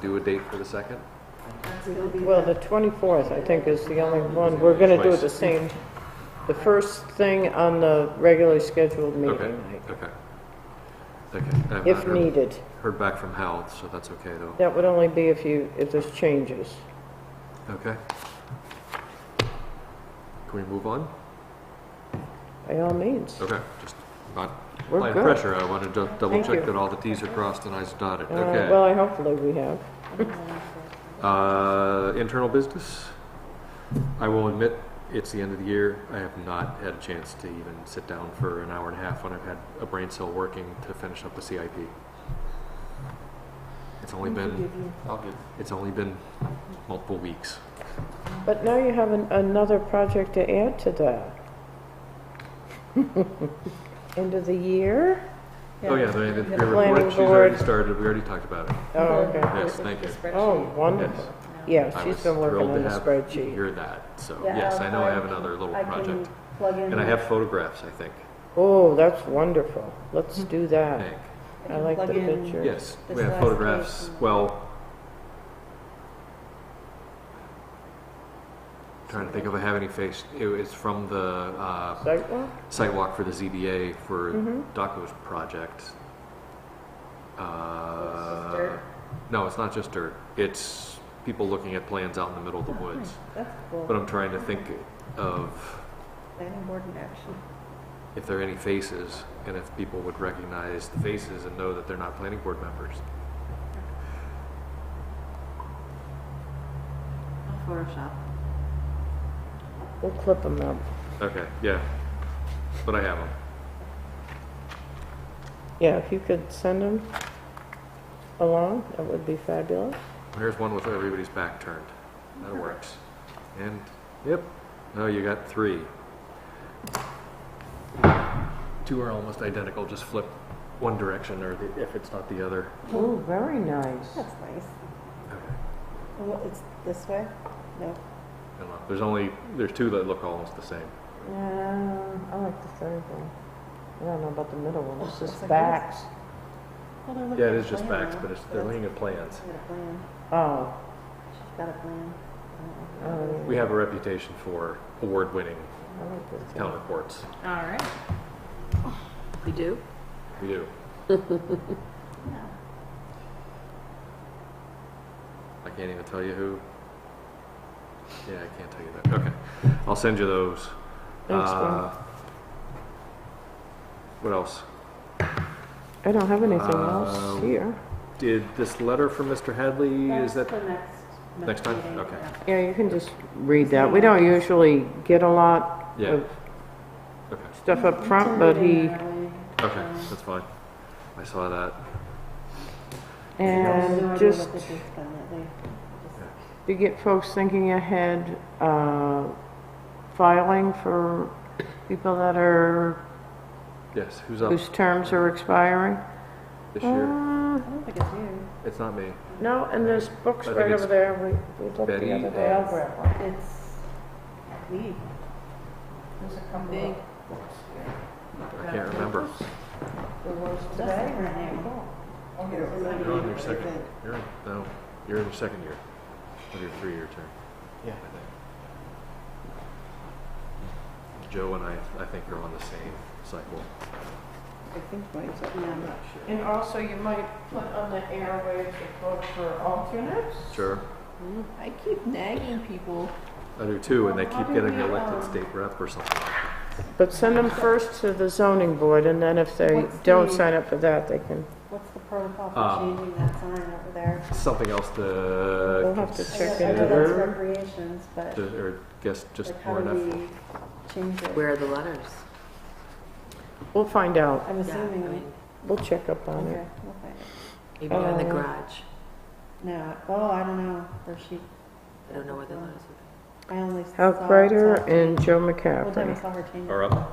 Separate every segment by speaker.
Speaker 1: Do a date for the second?
Speaker 2: Well, the 24th, I think, is the only one, we're going to do it the same, the first thing on the regularly scheduled
Speaker 1: Okay,
Speaker 2: meeting night,
Speaker 1: okay. Okay. I have not
Speaker 2: if
Speaker 1: heard-
Speaker 2: needed.
Speaker 1: Heard back from health, so that's okay though.
Speaker 2: That would only be if you, if there's changes.
Speaker 1: Okay. Can we move on?
Speaker 2: By all means,
Speaker 1: Okay, just not
Speaker 2: we're
Speaker 1: applying
Speaker 2: good.
Speaker 1: pressure. I wanted to double
Speaker 2: Thank
Speaker 1: check
Speaker 2: you.
Speaker 1: that all the Ts are crossed and Is are dotted.
Speaker 2: Uh,
Speaker 1: Okay.
Speaker 2: Well, I hopefully we have.
Speaker 1: Uh, Internal business? I will admit, it's the end of the year. I have not had a chance to even sit down for an hour and a half when I've had a brain cell working to finish up the CIP. It's only been,
Speaker 3: I'll give.
Speaker 1: it's only been multiple weeks.
Speaker 2: But now you have an- another project to add to that. End of the year?
Speaker 1: Oh, yeah, the, the
Speaker 2: planning
Speaker 1: report, she's
Speaker 2: board.
Speaker 1: already started, we already talked about it.
Speaker 2: Oh, okay.
Speaker 1: Yes, thank you.
Speaker 2: Oh, wonderful. Yeah,
Speaker 1: I
Speaker 2: she's
Speaker 1: was
Speaker 2: been working
Speaker 1: thrilled
Speaker 2: on
Speaker 1: to
Speaker 2: the
Speaker 1: have-
Speaker 2: spreadsheet.
Speaker 1: Hear that, so,
Speaker 3: Yeah,
Speaker 1: yes, I know I
Speaker 3: I'll-
Speaker 1: have another little
Speaker 3: I can
Speaker 1: project.
Speaker 3: Plug in.
Speaker 1: And I have photographs, I think,
Speaker 2: Oh, that's wonderful. Let's do
Speaker 1: I
Speaker 2: that.
Speaker 1: think.
Speaker 2: I like the
Speaker 3: plug in-
Speaker 2: picture.
Speaker 1: Yes,
Speaker 3: This
Speaker 1: we have
Speaker 3: last
Speaker 1: photographs,
Speaker 3: page.
Speaker 1: well. Trying to think if I have any face, it was from the, uh,
Speaker 2: Sidewalk?
Speaker 1: site walk for the ZBA for
Speaker 3: Mm-hmm.
Speaker 2: Mhm.
Speaker 1: Daco's project. Uh,
Speaker 3: dirt?
Speaker 1: No, it's not just dirt, it's people looking at plans out in the middle of the
Speaker 3: Oh,
Speaker 1: woods.
Speaker 3: That's
Speaker 1: But
Speaker 3: cool.
Speaker 1: I'm trying to think of
Speaker 3: Planning board in action.
Speaker 1: if there are any faces and if people would recognize the faces and know that they're not planning board members.
Speaker 3: Photoshop.
Speaker 2: We'll clip them up.
Speaker 1: Okay, yeah, but I have them.
Speaker 2: Yeah, if you could send them along, that would be fabulous.
Speaker 1: Here's one with everybody's back turned. That works. And, yep, no, you got three. Two are almost identical, just flip one direction or the- if it's not the other.
Speaker 2: Oh, very nice.
Speaker 3: That's nice.
Speaker 1: Okay.
Speaker 3: And what, it's this way? No.
Speaker 1: I don't know. There's only, there's two that look almost the same.
Speaker 2: Yeah, I like the third one. I don't know about the middle one, it's
Speaker 3: Oh,
Speaker 2: just
Speaker 3: it's like
Speaker 2: backs.
Speaker 3: Well, they're looking
Speaker 1: Yeah,
Speaker 3: at
Speaker 1: it
Speaker 3: a
Speaker 1: is just
Speaker 3: plan
Speaker 1: backs,
Speaker 3: now.
Speaker 1: but it's, they're
Speaker 3: That's-
Speaker 1: looking at plans.
Speaker 3: She's got a plan.
Speaker 2: Oh,
Speaker 3: She's got a plan. I don't know.
Speaker 2: oh,
Speaker 1: We have a reputation for award-winning
Speaker 2: yeah, I like this
Speaker 1: town
Speaker 2: one.
Speaker 1: reports.
Speaker 4: All right. We do?
Speaker 1: We do.
Speaker 3: Yeah.
Speaker 1: I can't even tell you who. Yeah, I can't tell you that. Okay. I'll send you those.
Speaker 2: Thanks,
Speaker 1: Uh,
Speaker 2: Bob.
Speaker 1: What else?
Speaker 2: I don't have anything
Speaker 1: Uh,
Speaker 2: else here.
Speaker 1: Did this letter from Mr. Hadley, is that,
Speaker 3: That's the next.
Speaker 1: Next time?
Speaker 3: meeting,
Speaker 1: Okay.
Speaker 3: yeah.
Speaker 2: Yeah, you can just read that. We don't usually get a lot
Speaker 1: Yeah.
Speaker 2: of
Speaker 1: Oh. okay,
Speaker 2: stuff up front, but he,
Speaker 1: okay, that's fine. I saw that.
Speaker 3: I have no idea
Speaker 2: and
Speaker 3: what
Speaker 2: just
Speaker 3: this is from that day. Just-
Speaker 2: to get folks thinking ahead, uh, filing for people that are,
Speaker 1: Yes, who's up
Speaker 2: whose terms are expiring.
Speaker 1: this year?
Speaker 2: Uh,
Speaker 3: I don't think it's you.
Speaker 1: It's not me.
Speaker 2: No, and there's books
Speaker 1: I think
Speaker 2: right
Speaker 1: it's
Speaker 2: over there, we, we looked
Speaker 1: Betty
Speaker 2: the other day. I'll
Speaker 1: and-
Speaker 2: grab one.
Speaker 3: It's me. There's a couple.
Speaker 4: Big.
Speaker 1: I can't remember.
Speaker 3: That's her name.
Speaker 1: You're on your second, you're, in- no, you're in your second year of your three-year term. Yeah. Joe and I, I think are on the same cycle.
Speaker 3: I think mine's up. Yeah, I'm not sure.
Speaker 2: And also, you might put on the airwaves a book for alternates.
Speaker 1: Sure.
Speaker 4: I keep nagging people.
Speaker 1: I do too, and they keep getting elected state rep or something.
Speaker 2: But send them first to the zoning board, and then if they
Speaker 3: What's
Speaker 2: don't
Speaker 3: the-
Speaker 2: sign up for that, they can,
Speaker 3: What's the protocol
Speaker 1: Uh,
Speaker 3: for changing that sign over there?
Speaker 1: Something else to.
Speaker 2: We'll have to
Speaker 3: I
Speaker 2: check
Speaker 3: know- I know that's
Speaker 1: consider.
Speaker 3: recreations, but
Speaker 1: Ju- Or guess just
Speaker 3: like how
Speaker 1: more
Speaker 3: do
Speaker 1: enough.
Speaker 3: we change it?
Speaker 4: Where are the letters?
Speaker 2: we'll find out.
Speaker 3: I'm
Speaker 4: Yeah, I
Speaker 3: assuming,
Speaker 4: mean,
Speaker 2: We'll check up on it.
Speaker 3: okay, we'll find it.
Speaker 4: Maybe on the
Speaker 2: Uh,
Speaker 4: garage.
Speaker 3: No, oh, I don't know, or she,
Speaker 4: I don't know where the letters are.
Speaker 3: I only saw.
Speaker 2: Hal Kreider
Speaker 3: saw-
Speaker 2: and Joe
Speaker 3: One time I
Speaker 2: McCaffrey.
Speaker 3: saw her change
Speaker 1: Are
Speaker 3: it.
Speaker 1: up.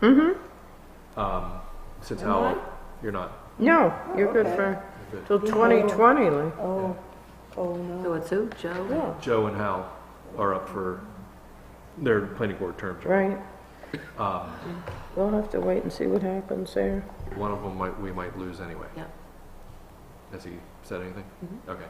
Speaker 2: Mm-hmm,
Speaker 1: Um, since
Speaker 3: Am
Speaker 1: how,
Speaker 3: I?
Speaker 1: you're not.
Speaker 2: no,
Speaker 3: Oh,
Speaker 2: you're good
Speaker 3: okay.
Speaker 2: for,
Speaker 1: You're good.
Speaker 2: till 2020, Lee.
Speaker 3: Oh, oh
Speaker 4: So
Speaker 3: no.
Speaker 4: it's who? Joe?
Speaker 2: Yeah,
Speaker 1: Joe and Hal are up for their planning board terms.
Speaker 2: right.
Speaker 1: Um,
Speaker 2: We'll have to wait and see what happens there.
Speaker 1: one of them might, we might lose anyway.
Speaker 4: Yeah.
Speaker 3: Mm-hmm.
Speaker 1: Has he said anything? Okay.